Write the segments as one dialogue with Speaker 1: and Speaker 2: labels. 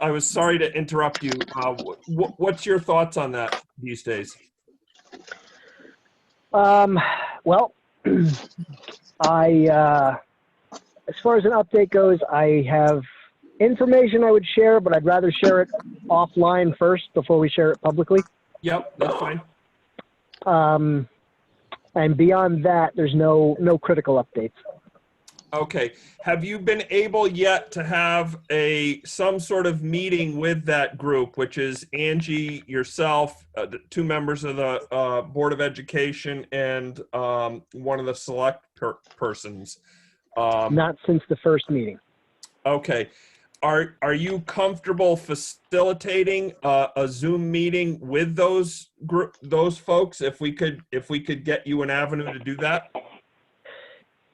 Speaker 1: I was sorry to interrupt you. Uh, wh- what's your thoughts on that these days?
Speaker 2: Um, well, I, uh, as far as an update goes, I have information I would share, but I'd rather share it offline first before we share it publicly.
Speaker 1: Yep, that's fine.
Speaker 2: Um, and beyond that, there's no, no critical updates.
Speaker 1: Okay. Have you been able yet to have a, some sort of meeting with that group, which is Angie, yourself, uh, the two members of the uh, Board of Education, and um, one of the select per- persons? Um,
Speaker 2: Not since the first meeting.
Speaker 1: Okay. Are, are you comfortable facilitating uh, a Zoom meeting with those group, those folks? If we could, if we could get you an avenue to do that?
Speaker 2: I-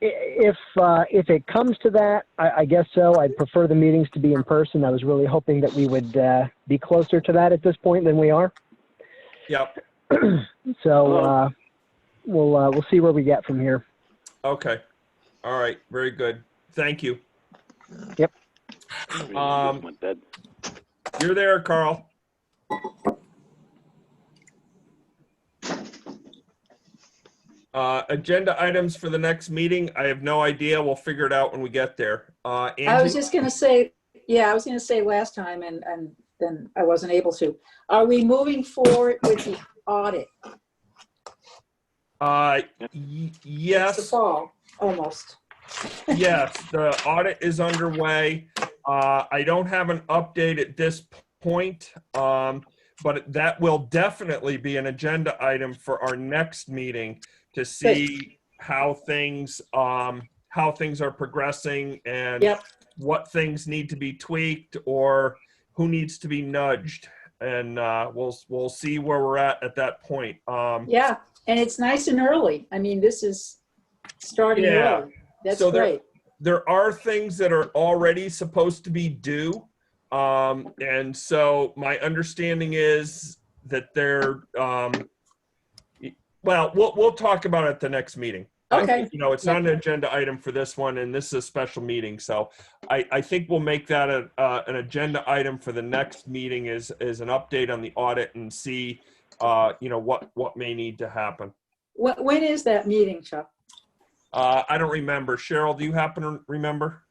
Speaker 2: If, uh, if it comes to that, I, I guess so. I'd prefer the meetings to be in person. I was really hoping that we would, uh, be closer to that at this point than we are.
Speaker 1: Yep.
Speaker 2: So, uh, we'll, uh, we'll see where we get from here.
Speaker 1: Okay. All right. Very good. Thank you. Um,
Speaker 3: Went dead.
Speaker 1: You're there, Carl. Uh, agenda items for the next meeting. I have no idea. We'll figure it out when we get there. Uh,
Speaker 4: I was
Speaker 1: Angie,
Speaker 4: just gonna say, yeah, I was gonna say last time and, and then I wasn't able to. Are we moving forward with the audit?
Speaker 1: uh, y-
Speaker 4: It's the
Speaker 1: yes,
Speaker 4: fall, almost.
Speaker 1: yes, the audit is underway. Uh, I don't have an update at this point. Um, but that will definitely be an agenda item for our next meeting to see how things, um, how things are progressing and
Speaker 4: Yep.
Speaker 1: what things need to be tweaked or who needs to be nudged. And, uh, we'll, we'll see where we're at at that point. Um,
Speaker 4: Yeah, and it's nice and early. I mean, this is starting
Speaker 1: Yeah.
Speaker 4: early. That's
Speaker 1: So there-
Speaker 4: great.
Speaker 1: there are things that are already supposed to be due. Um, and so my understanding is that they're, um, y- well, we'll, we'll talk about it at the next meeting. I
Speaker 4: Okay.
Speaker 1: think, You know, it's not an agenda item for this one and this is a special meeting. So I, I think we'll make that a, uh, an agenda item for the next meeting is, is an update on the audit and see, uh, you know, what, what may need to happen.
Speaker 4: When, when is that meeting, Chuck?
Speaker 1: Uh, I don't remember. Cheryl, do you happen to remember?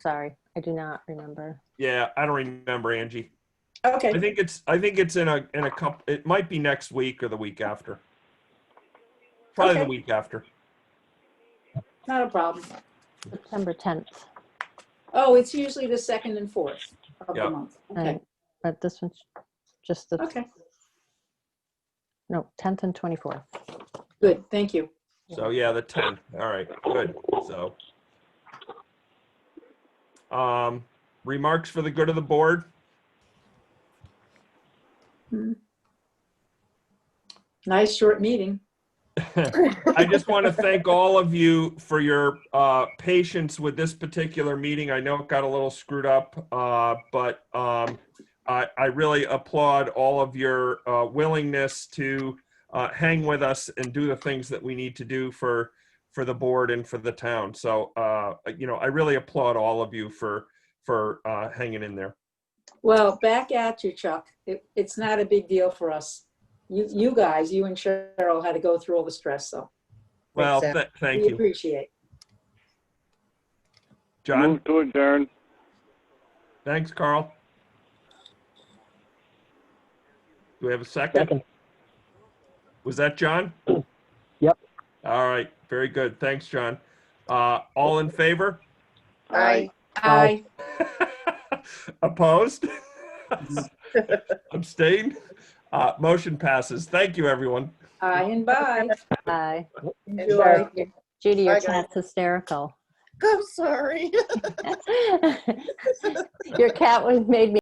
Speaker 5: Sorry, I do not remember.
Speaker 1: Yeah, I don't remember, Angie.
Speaker 4: Okay,
Speaker 1: I think it's, I think it's in a, in a couple, it might be next week or the week after. Probably the
Speaker 4: Okay.
Speaker 1: week after.
Speaker 4: not a problem.
Speaker 5: September 10th,
Speaker 4: Oh, it's usually the second and fourth of
Speaker 1: Yeah.
Speaker 4: the month. Okay,
Speaker 5: Right. but this one's just the,
Speaker 4: okay,
Speaker 5: no, 10th and 24th.
Speaker 4: good, thank you.
Speaker 1: So yeah, the 10th. All right, good. So. Um, remarks for the good of the board?
Speaker 4: Nice short meeting.
Speaker 1: I just want to thank all of you for your uh, patience with this particular meeting. I know it got a little screwed up, uh, but um, I, I really applaud all of your uh, willingness to uh, hang with us and do the things that we need to do for for the board and for the town. So uh, you know, I really applaud all of you for for uh, hanging in there.
Speaker 4: Well, back at you, Chuck. It, it's not a big deal for us. You, you guys, you and Cheryl had to go through all the stress, so
Speaker 1: Well, th- thank
Speaker 4: we
Speaker 1: you,
Speaker 4: appreciate.
Speaker 1: John.
Speaker 3: Move to adjourn.
Speaker 1: Thanks, Carl. Do we have a second?
Speaker 2: Second.
Speaker 1: Was that John?
Speaker 2: Yep.
Speaker 1: All right, very good. Thanks, John. Uh, all in favor?
Speaker 6: Aye.
Speaker 4: Aye.
Speaker 1: Opposed? Abstained? Uh, motion passes. Thank you, everyone.
Speaker 4: Aye and bye.
Speaker 5: Bye.
Speaker 4: Enjoy.
Speaker 5: Judy, your
Speaker 6: Bye, guys.
Speaker 5: cat's hysterical.
Speaker 6: I'm sorry.
Speaker 5: Your cat was made me